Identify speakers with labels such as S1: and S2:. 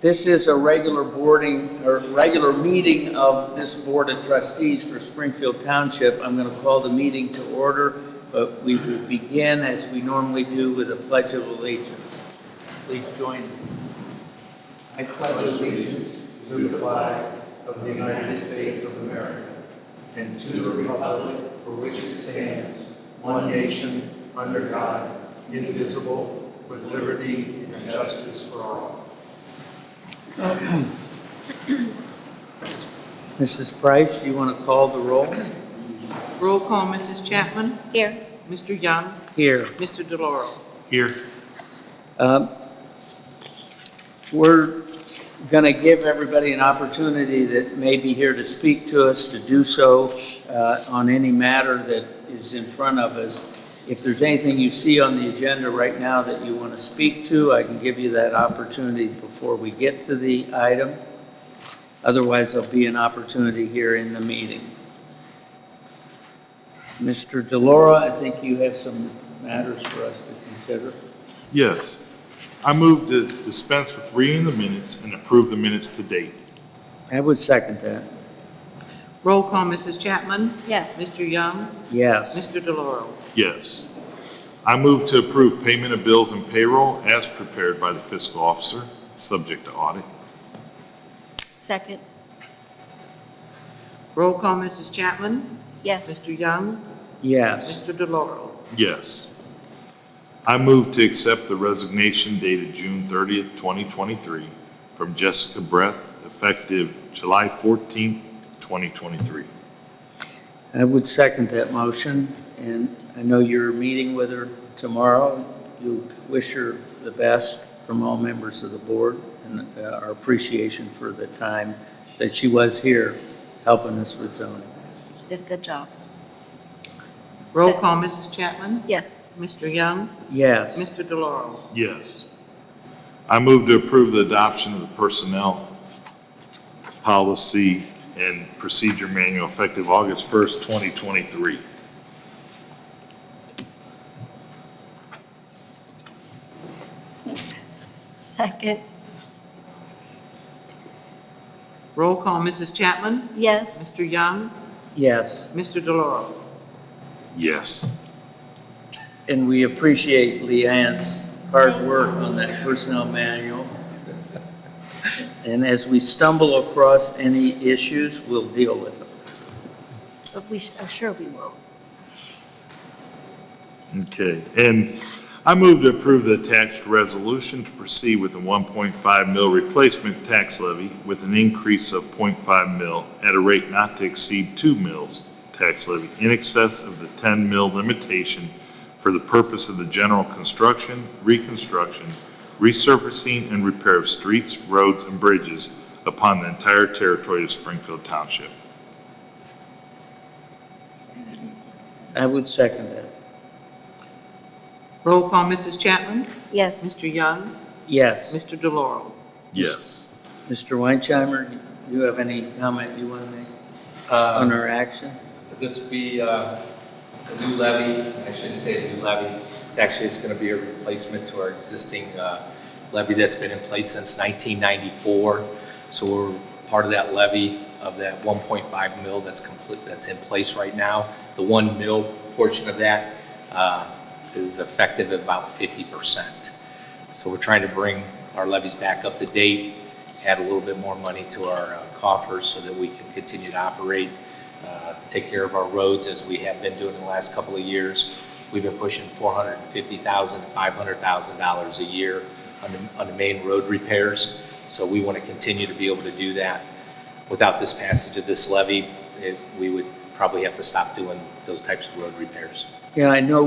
S1: This is a regular boarding, or regular meeting of this Board of Trustees for Springfield Township. I'm going to call the meeting to order, but we will begin as we normally do with a pledge of allegiance. Please join me.
S2: I pledge allegiance to the flag of the United States of America and to the republic for which it stands, one nation, under God, indivisible, with liberty and justice for all.
S1: Mrs. Price, do you want to call the roll?
S3: Roll call, Mrs. Chapman?
S4: Here.
S3: Mr. Young?
S1: Here.
S3: Mr. DeLauro?
S2: Here.
S1: Um, We're going to give everybody an opportunity that may be here to speak to us, to do so uh, on any matter that is in front of us. If there's anything you see on the agenda right now that you want to speak to, I can give you that opportunity before we get to the item. Otherwise, there'll be an opportunity here in the meeting. Mr. Delora, I think you have some matters for us to consider.
S5: Yes. I move to dispense with reading the minutes and approve the minutes to date.
S1: I would second that.
S3: Roll call, Mrs. Chapman?
S4: Yes.
S3: Mr. Young?
S1: Yes.
S3: Mr. DeLauro?
S5: Yes. I move to approve payment of bills and payroll as prepared by the fiscal officer, subject to audit.
S4: Second.
S3: Roll call, Mrs. Chapman?
S4: Yes.
S3: Mr. Young?
S1: Yes.
S3: Mr. DeLauro?
S5: Yes. I move to accept the resignation dated June 30th, 2023, from Jessica Breath, effective July 14th, 2023.
S1: I would second that motion, and I know you're meeting with her tomorrow. You wish her the best from all members of the board and uh, our appreciation for the time that she was here helping us with zoning.
S4: She did a good job.
S3: Roll call, Mrs. Chapman?
S4: Yes.
S3: Mr. Young?
S1: Yes.
S3: Mr. DeLauro?
S5: Yes. I move to approve the adoption of the personnel policy and procedure manual effective August 1st, 2023.
S4: Second.
S3: Roll call, Mrs. Chapman?
S4: Yes.
S3: Mr. Young?
S1: Yes.
S3: Mr. DeLauro?
S5: Yes.
S1: And we appreciate Leanne's hard work on that personnel manual. And as we stumble across any issues, we'll deal with them.
S4: But we, I'm sure we will.
S5: Okay. And I move to approve the attached resolution to proceed with a 1.5 mil replacement tax levy with an increase of 0.5 mil at a rate not to exceed 2 mils tax levy in excess of the 10 mil limitation for the purpose of the general construction, reconstruction, resurfacing, and repair of streets, roads, and bridges upon the entire territory of Springfield Township.
S1: I would second that.
S3: Roll call, Mrs. Chapman?
S4: Yes.
S3: Mr. Young?
S1: Yes.
S3: Mr. DeLauro?
S5: Yes.
S1: Mr. Weinheimer, do you have any comment you want to make on
S6: Uh,
S1: our action?
S6: This would be uh, a new levy, I shouldn't say a new levy, it's actually, it's going to be a replacement to our existing uh, levy that's been in place since 1994. So we're part of that levy of that 1.5 mil that's complete, that's in place right now. The 1 mil portion of that uh, is effective at about 50%. So we're trying to bring our levies back up to date, add a little bit more money to our uh, coffers so that we can continue to operate, uh, take care of our roads as we have been doing in the last couple of years. We've been pushing $450,000, $500,000 a year on the, on the main road repairs. So we want to continue to be able to do that. Without this passage of this levy, it- we would probably have to stop doing those types of road repairs.
S1: Yeah, I know